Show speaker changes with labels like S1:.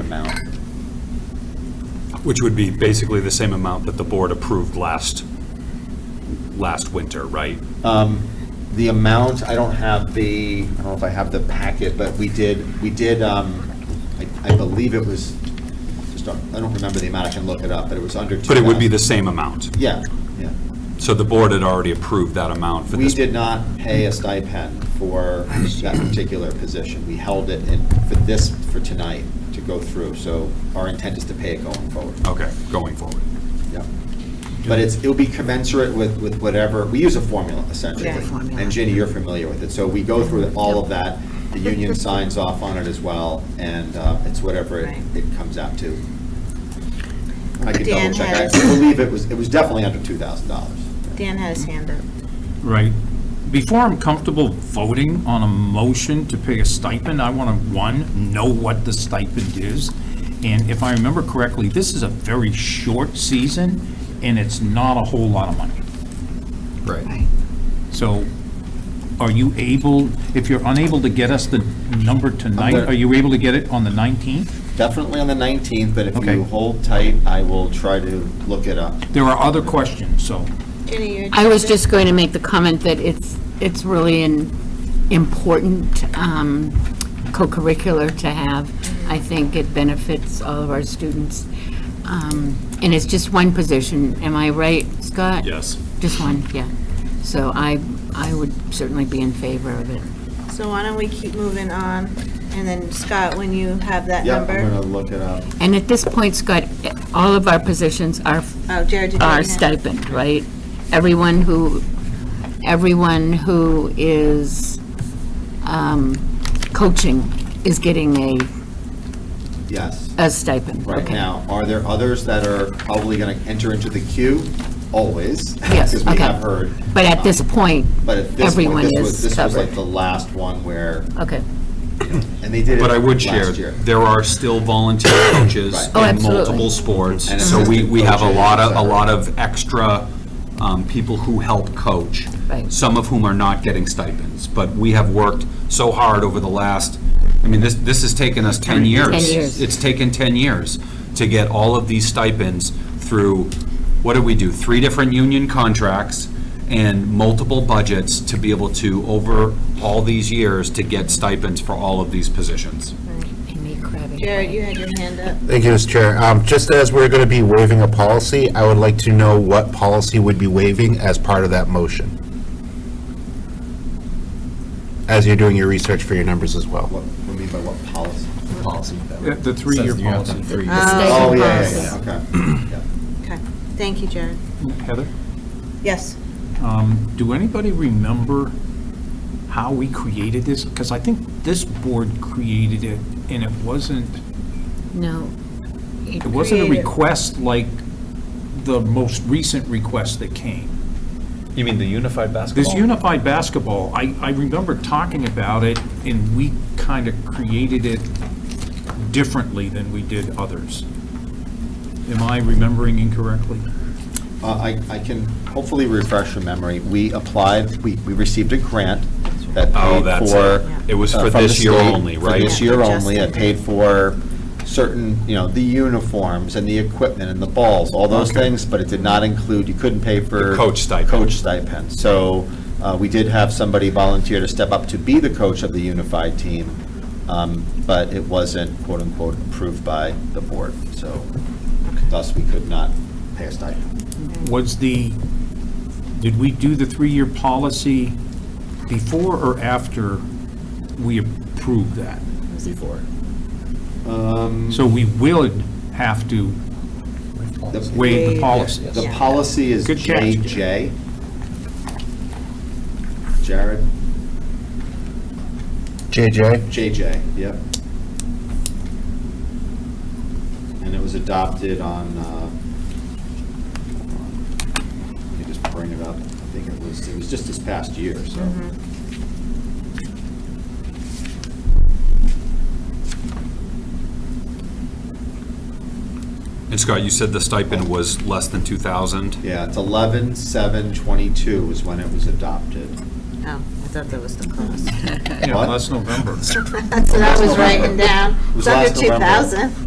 S1: amount.
S2: Which would be basically the same amount that the board approved last, last winter, right?
S1: Um, The amount, I don't have the, I don't know if I have the packet, but we did, we did, um, I I believe it was, just, don't- I don't remember the amount, I can look it up, but it was under two.
S2: But it would be the same amount.
S1: Yeah, yeah.
S2: So the board had already approved that amount for
S1: We
S2: this.
S1: did not pay a stipend for that particular position. We held it in, for this, for tonight, to go through, so our intent is to pay it going forward.
S2: Okay, going forward.
S1: Yep. But it's, it'll be commensurate with, with whatever, we use a formula essentially.
S3: Yeah, formula.
S1: And Ginny, you're familiar with it, so we go through all of that, the union signs off on it as well, and uh, it's whatever it,
S3: Right.
S1: it comes out to. I could double
S3: Dan
S1: check, I
S3: has-
S1: believe it was, it was definitely under two thousand dollars.
S3: Dan had his hand up.
S4: Right. Before I'm comfortable voting on a motion to pay a stipend, I want to, one, know what the stipend is. And if I remember correctly, this is a very short season, and it's not a whole lot of money.
S2: Right.
S4: So are you able, if you're unable to get us the number
S1: gonna-
S4: tonight, are you able to get it on the 19th?
S1: Definitely on the nineteenth, but if you
S4: Okay.
S1: hold tight, I will try to look it up.
S4: There are other questions, so.
S3: Jenny, you
S5: I was just going to make the comment that it's, it's really an important um, co-curricular to have. I think it benefits all of our students. Um, And it's just one position, am I right, Scott?
S2: Yes.
S5: Just one, yeah. So I, I would certainly be in favor of it.
S3: So why don't we keep moving on, and then Scott, when you have that
S1: Yeah, I'm
S3: number?
S1: gonna look it up.
S5: And at this point, Scott, all of our positions are
S3: Oh, Jared, did you?
S5: our
S3: have your hand-
S5: stipend, right? Everyone who, everyone who is um, coaching is getting a,
S1: Yes.
S5: a stipend.
S1: right
S5: Okay.
S1: now. Are there others that are probably going to enter into the queue? Always.
S5: Yes,
S1: Because we
S5: okay.
S1: have heard.
S5: But at this
S1: Um,
S5: point,
S1: But at this point,
S5: everyone
S1: this was,
S5: is
S1: this was like
S5: covered.
S1: the last one where,
S5: Okay.
S1: and they did it
S2: But I would
S1: last
S2: share,
S1: year.
S2: there are still volunteer coaches
S1: Right.
S5: Oh,
S2: in
S5: absolutely.
S2: multiple sports.
S1: And
S2: So we,
S1: assistant
S2: we have a
S1: coaches,
S2: lot of,
S1: et
S2: a
S1: cetera.
S2: lot of extra um, people who help coach.
S5: Right.
S2: Some of whom are not getting stipends, but we have worked so hard over the last, I mean, this, this has taken us 10 years.
S5: 10 years.
S2: It's taken 10 years to get all of these stipends through, what did we do? Three different union contracts and multiple budgets to be able to, over all these years, to get stipends for all of these positions.
S5: Amy Kravitz.
S3: Jared, you had your hand up.
S6: Thank you, Mr. Chair. Um, Just as we're going to be waiving a policy, I would like to know what policy would be waiving as part of that motion. As you're doing your research for your numbers as well.
S1: What, what do you mean by what policy? Policy.
S4: uh, The three-year policy.
S1: Oh,
S3: Stipend
S1: yeah, yeah,
S3: policy.
S1: yeah, okay. Yeah.
S3: Okay, thank you, Jared.
S4: Heather?
S3: Yes,
S4: Um, Do anybody remember how we created this? Because I think this board created it, and it wasn't,
S5: No.
S4: it wasn't a
S3: Created.
S4: request like the most recent request that came.
S2: You mean the unified basketball?
S4: This unified basketball, I, I remember talking about it, and we kind of created it differently than we did others. Am I remembering incorrectly?
S1: Uh, I, I can hopefully refresh your memory. We applied, we, we received a grant that
S2: Oh,
S1: paid
S2: that's
S1: for.
S2: it. It was
S1: uh,
S2: for
S1: from the
S2: this year
S1: state,
S2: only,
S1: For
S2: right?
S1: this
S3: Yeah,
S1: year
S3: just
S1: only, it
S3: the-
S1: paid for certain, you know, the uniforms and the equipment and the balls, all those
S2: Okay.
S1: things, but it did not include, you couldn't pay for.
S2: The coach stipend.
S1: Coach stipend. So uh, we did have somebody volunteer to step up to be the coach of the unified team, um, but it wasn't quote-unquote approved by the board, so thus we could not pay a stipend.
S4: Was the, did we do the three-year policy before or after we approved that?
S1: before.
S4: So we would have to waive the policy.
S1: The policy is
S4: Good catch.
S1: JJ. Jared,
S6: JJ?
S1: JJ, yep. And it was adopted on, uh, let me just bring it up. I think it was, it was just this past year, so.
S3: Mm-hmm.
S2: And Scott, you said the stipend was less than 2,000?
S1: Yeah, it's 11/7/22 was when it was adopted.
S3: oh, I thought that was the cost.
S4: Yeah,
S1: What?
S4: last November.
S3: That's what I was writing down.
S1: It was
S3: It's under
S1: last November.
S3: 2,000.